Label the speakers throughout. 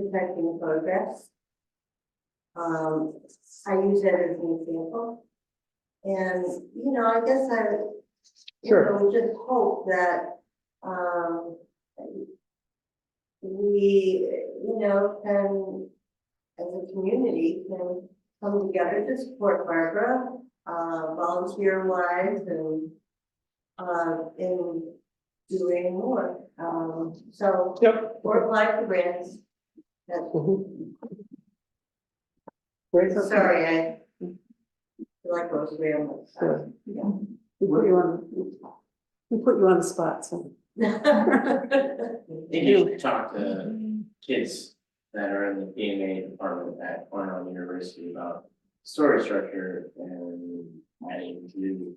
Speaker 1: protecting photographs. Um, I use that as an example. And, you know, I guess I, you
Speaker 2: Sure.
Speaker 1: know, just hope that, um, we, you know, can, as a community, can come together to support Barbara, uh, volunteer wise and, uh, in doing more. Um, so
Speaker 2: Yep.
Speaker 1: work life grants. That's,
Speaker 2: Mhm. Great.
Speaker 1: sorry, I feel like I was rambling.
Speaker 2: Sure.
Speaker 1: Yeah.
Speaker 2: We put you on, we put you on the spot, so.
Speaker 3: I think you should talk to kids that are in the PMA department at Cornell University about story structure and adding to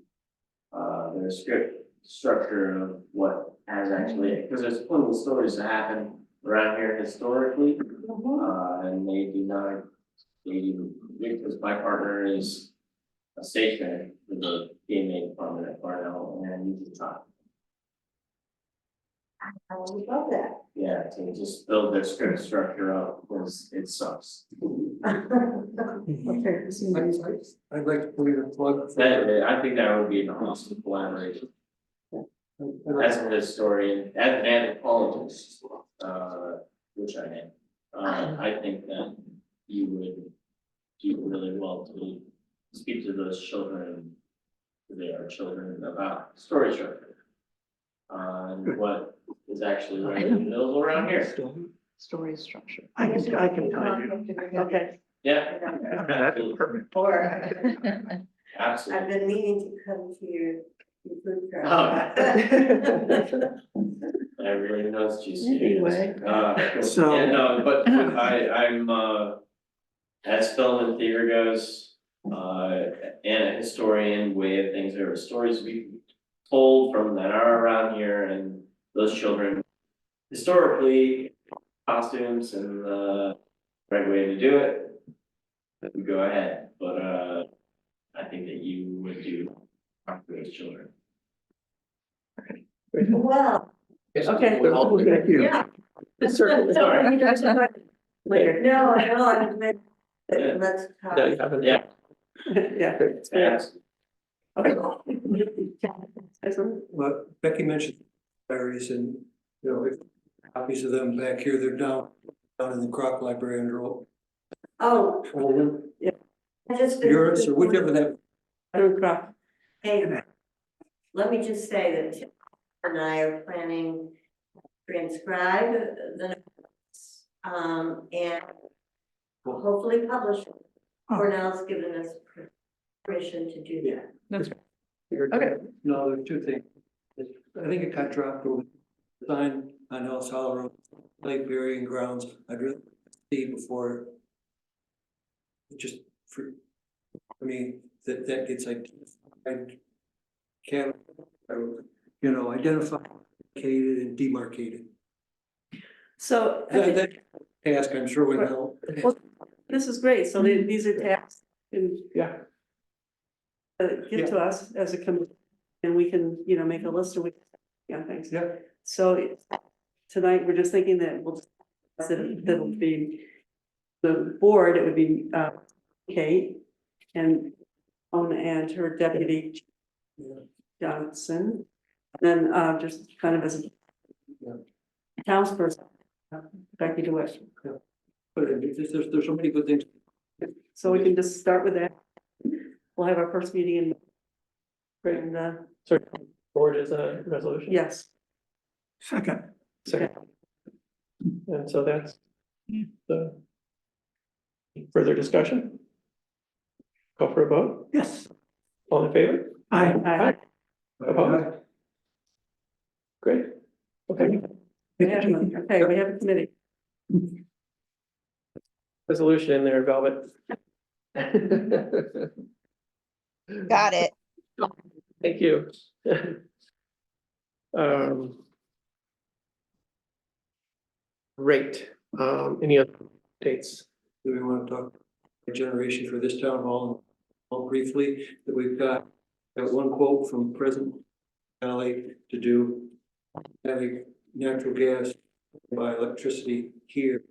Speaker 3: uh, their script structure of what has actually, because there's plenty of stories that happen around here historically.
Speaker 1: Mhm.
Speaker 3: Uh, and they do not, they, because my partner is a stationer for the PMA department at Cornell, and you can talk
Speaker 1: I would love that.
Speaker 3: Yeah, to just build their script structure up, because it sucks.
Speaker 4: Mm-hmm.
Speaker 2: Okay. this is-
Speaker 5: I'd like to put in a plug for, I'd
Speaker 3: That, I think that would be an awesome collaboration,
Speaker 5: like
Speaker 3: as a historian, as an anthropologist, uh, which I am. Uh, I think that you would do really well to speak to those children, they are children, about story structure. Uh, and what is actually right in the middle around here,
Speaker 2: Story structure.
Speaker 4: I can, I can tell you.
Speaker 2: Okay.
Speaker 3: yeah.
Speaker 4: That's perfect.
Speaker 1: Or,
Speaker 3: Absolutely.
Speaker 1: I've been meaning to come to your, your food truck.
Speaker 2: Oh.
Speaker 3: I really know it's juicy.
Speaker 2: Anyway.
Speaker 3: Uh,
Speaker 4: So-
Speaker 3: yeah, no, but but I, I'm, uh, as film and theater goes, uh, and a historian way of things, there are stories we told from that are around here and those children. Historically, costumes and the right way to do it. we Go ahead, but, uh, I think that you would do, talk to those children.
Speaker 1: Well,
Speaker 2: Okay.
Speaker 4: Thank you.
Speaker 1: yeah,
Speaker 2: Certainly.
Speaker 3: Sorry.
Speaker 2: You guys know what? Later.
Speaker 1: no, no, I meant,
Speaker 3: Yeah.
Speaker 1: let's talk.
Speaker 4: Yeah, you have it.
Speaker 3: Yeah.
Speaker 2: Yeah. it's fair.
Speaker 3: That's
Speaker 2: Okay. Excellent.
Speaker 5: Well, Becky mentioned diaries and, you know, if copies of them back here, they're down, down in the crop library under old.
Speaker 1: Oh,
Speaker 5: old
Speaker 1: I just.
Speaker 5: Yours or whichever that,
Speaker 2: Adam Croft.
Speaker 1: Hey, let me just say that Tim and I are planning to transcribe the notes, um, and hopefully publish. it. Cornell's given us permission to do that.
Speaker 2: Okay.
Speaker 5: no, there are two things. I think it got dropped or signed on El Road, Lake Burying Grounds, I'd really see before. Just for, I mean, that, that gets like, I can, you know, identified, located and demarcated.
Speaker 2: So I
Speaker 5: That,
Speaker 2: think
Speaker 5: that task, I'm sure we know.
Speaker 2: Well, this is great. So the- these are tasks and
Speaker 5: Mm-hmm. Yeah.
Speaker 2: uh,
Speaker 5: Yeah.
Speaker 2: give to us as a committee. And we can, you know, make a list and we, yeah, thanks.
Speaker 5: Yeah.
Speaker 2: So it- tonight, we're just thinking that we'll, that
Speaker 5: Mm-hmm.
Speaker 2: that'll be, the board, it would be uh, Kate and own and her deputy
Speaker 5: Yeah.
Speaker 2: Johnson. Then uh, just kind of as
Speaker 5: Yeah.
Speaker 2: a townsperson, uh, Becky DeWitt.
Speaker 5: But there's, there's, there's so many good things.
Speaker 2: So we can just start with that. We'll have our first meeting in. In, uh,
Speaker 4: So forward is a resolution.
Speaker 2: yes,
Speaker 4: Second. Second. And so that's the further discussion. Call for a vote? Yes. All in favor? Aye.
Speaker 2: I,
Speaker 4: Opposed? Great. Okay,
Speaker 2: we have one. okay, we have a committee.
Speaker 4: resolution in there, Velvet.
Speaker 6: Got it.
Speaker 4: Thank you. Um. Great, um, any other dates?
Speaker 5: Do we want to talk about generation for this town hall? All briefly, that we've got, got one quote from present Valley to do. Having natural gas by electricity here